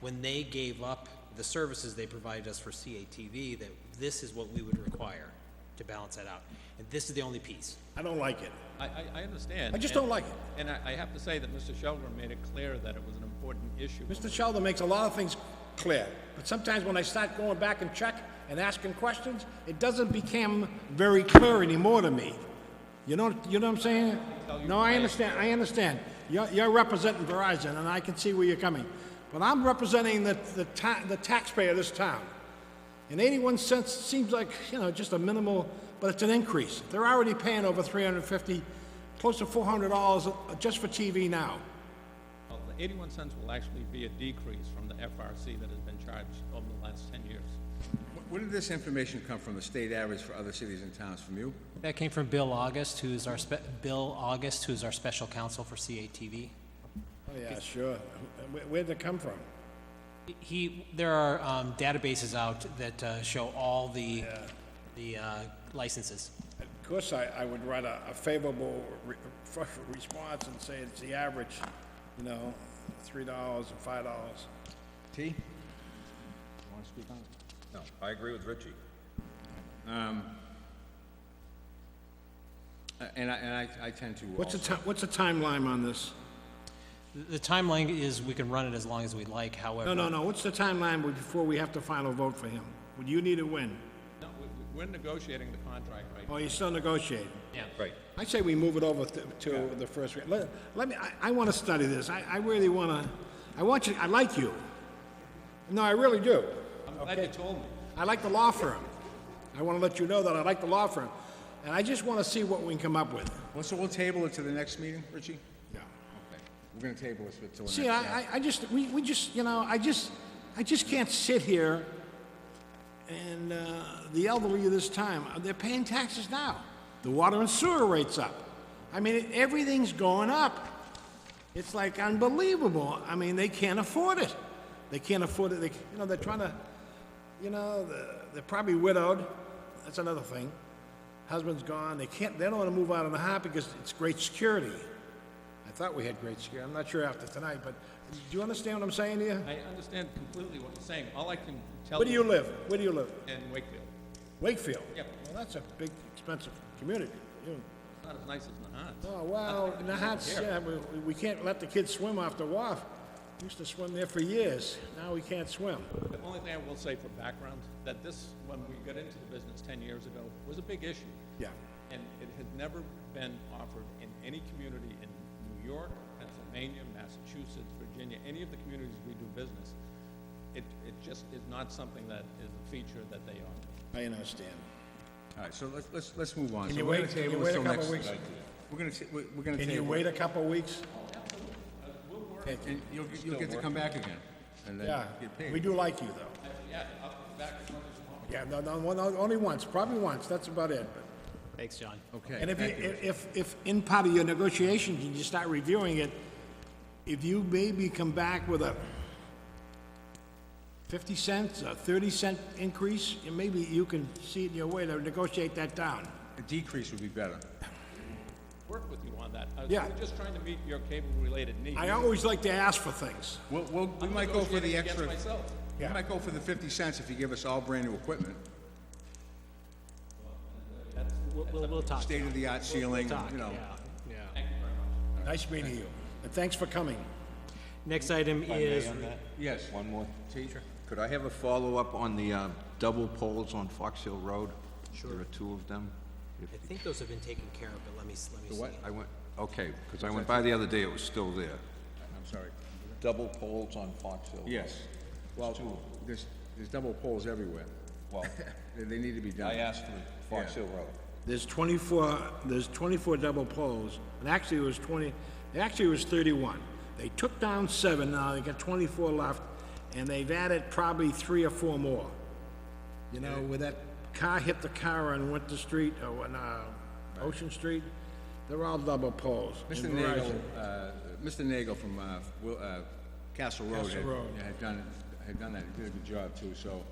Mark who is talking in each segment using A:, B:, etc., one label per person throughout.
A: when they gave up the services they provided us for CATV, that this is what we would require to balance that out. And this is the only piece.
B: I don't like it.
C: I, I, I understand.
B: I just
C: and-
B: don't like it.
C: And I, I have to say that Mr. Sheldon made it clear that it was an important issue.
B: Mr. Sheldon makes a lot of things clear, but sometimes when I start going back and check and asking questions, it doesn't become very clear anymore to me. You know, you know what I'm saying? No, I understand, I understand. You're, you're representing Verizon, and I can see where you're coming. But I'm representing the, the ta- the taxpayer of this town. And 81 cents seems like, you know, just a minimal, but it's an increase. They're already paying over 350, close to $400 just for TV now.
C: Well, The eighty-one cents will actually be a decrease from the FRC that has been charged over the last ten years.
D: Where did this information come from, the state average for other cities and towns, from you?
E: That came from Bill August, who is our, spe- Bill August, who is our special counsel for CATV.
B: Oh, yeah, sure. Wh- wh- Where'd it come from?
E: He, there are um, databases out that uh, show all the, the uh, licenses.
B: Of course, I, I would write a, a favorable re- f- response and say it's the average, you know, three dollars and five dollars.
D: T? You want to speak on
F: No, I agree with Richie.
D: Um, it? uh, And I, and I, I tend to
B: What's the
D: also-
B: ti- what's the timeline on this?
E: The- The timeline is, we can run it as long as we like, however.
B: No, no, no, what's the timeline before we have to final vote for him? Would you need to win?
C: No, we, we- we're negotiating the contract right now.
B: Or you still negotiating?
F: Right.
B: I say we move it over th- to the first, re- let, let me, I, I wanna study this, I, I really wanna, I want you, I like you. No, I really do.
C: I'm glad you told me.
B: I like the law firm. I want to let you know that I like the law firm. And I just want to see what we can come up with.
D: Well, so we'll table it to the next meeting, Richie?
B: Yeah.
D: Okay. We're gonna table this until the next.
B: See, I, I- I just, we, we just, you know, I just, I just can't sit here and, uh, the elderly of this time, uh, they're paying taxes now. The water and sewer rates up. I mean, everything's going up. It's like unbelievable. I mean, they can't afford it. They can't afford it. They, you know, they're trying to, you know, the- they're probably widowed. That's another thing. Husband's gone. They can't, they don't want to move out on the hot because it's great security. I thought we had great security. I'm not sure after tonight, but do you understand what I'm saying to you?
C: I understand completely what you're saying. All I can tell
B: Where do you
C: you
B: live? Where do you live?
C: in Wakefield,
B: Wakefield?
C: Yep.
B: Well, that's a big, expensive community. You-
C: it's not as nice as Nahant.
B: Oh, wow, Nahat's, yeah, we, we can't let the kids swim off the WAF. We Used to swim there for years. Now we can't swim.
C: The only thing I will say for background, that this, when we got into the business ten years ago, was a big issue.
B: Yeah.
C: And it had never been offered in any community in New York, Pennsylvania, Massachusetts, Virginia, any of the communities we do business. It, it just is not something that is a feature that they offer.
B: I understand.
D: All right, so let's, let's, let's move on.
B: Can
D: So
B: you
D: we're
B: wait-
D: gonna
B: can you
D: table this
B: wait a
D: till
B: couple
D: next-
B: weeks?
D: We're gonna, ta- we're we're gonna table.
B: Can you
D: it.
B: wait a couple of weeks?
D: Okay, And you'll, you'll get to come back again, and then
B: Yeah,
D: get paid.
B: we do like you, though.
C: Yeah, I'll come back as much as you want.
B: Yeah, no, no, one- only once, probably once, that's about it. But-
E: Thanks, John.
D: Okay,
B: And if,
D: thank you.
B: you- if, if in part of your negotiations, and you start reviewing it, if you maybe come back with a 50 cents, a 30 cent increase, and maybe you can see it in your way to negotiate that down.
D: A decrease would be better.
C: Work with you on that. I was
B: Yeah.
C: really just trying to meet your cable-related needs.
B: I always like to ask for things.
D: We'll, we'll, we
C: I'm
D: might go for the
C: negotiating against
D: extra,
C: myself.
D: we
B: Yeah.
D: might go for the fifty cents if you give us all brand-new equipment,
E: We'll, we'll- we'll talk.
D: state-of-the-art ceiling, you know.
B: Nice meeting you, and thanks for coming.
E: Next item is
D: Yes.
F: One more. Teacher. Could I have a follow-up on the uh, double poles on Fox Hill Road? Sure. There are two of them. If-
E: I think those have been taken care of, but let me, let me see.
D: What?
F: I went, okay, because I went by the other day, it was still there.
D: I'm sorry.
F: Double poles on Fox Hill.
D: Yes. Well, there's, there's double poles everywhere.
F: Well,
D: They, they need to be done.
F: I asked for Fox
D: Yeah.
F: Hill Road.
B: There's 24, there's 24 double poles, and actually it was 20, actually it was 31. They took down seven, now they got 24 left, and they've added probably three or four more. You know, where that car hit the car on Winter Street, or on, uh, Ocean Street, they're all double poles.
D: Mr.
B: And
D: Nagel,
B: Verizon-
D: uh, Mr. Nagel from, uh, Wil- uh, Castle Road
B: Castle
D: had,
B: Road.
D: had done, had done that, he did a good job too, so.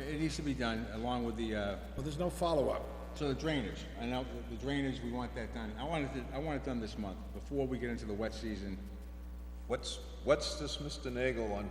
D: It needs to be done along with the, uh,
B: Well, there's no follow-up.
D: so the drainage, I know the- the drainage, we want that done, I want it, to- I want it done this month, before we get into the wet season.
F: What's, what's this Mr. Nagel on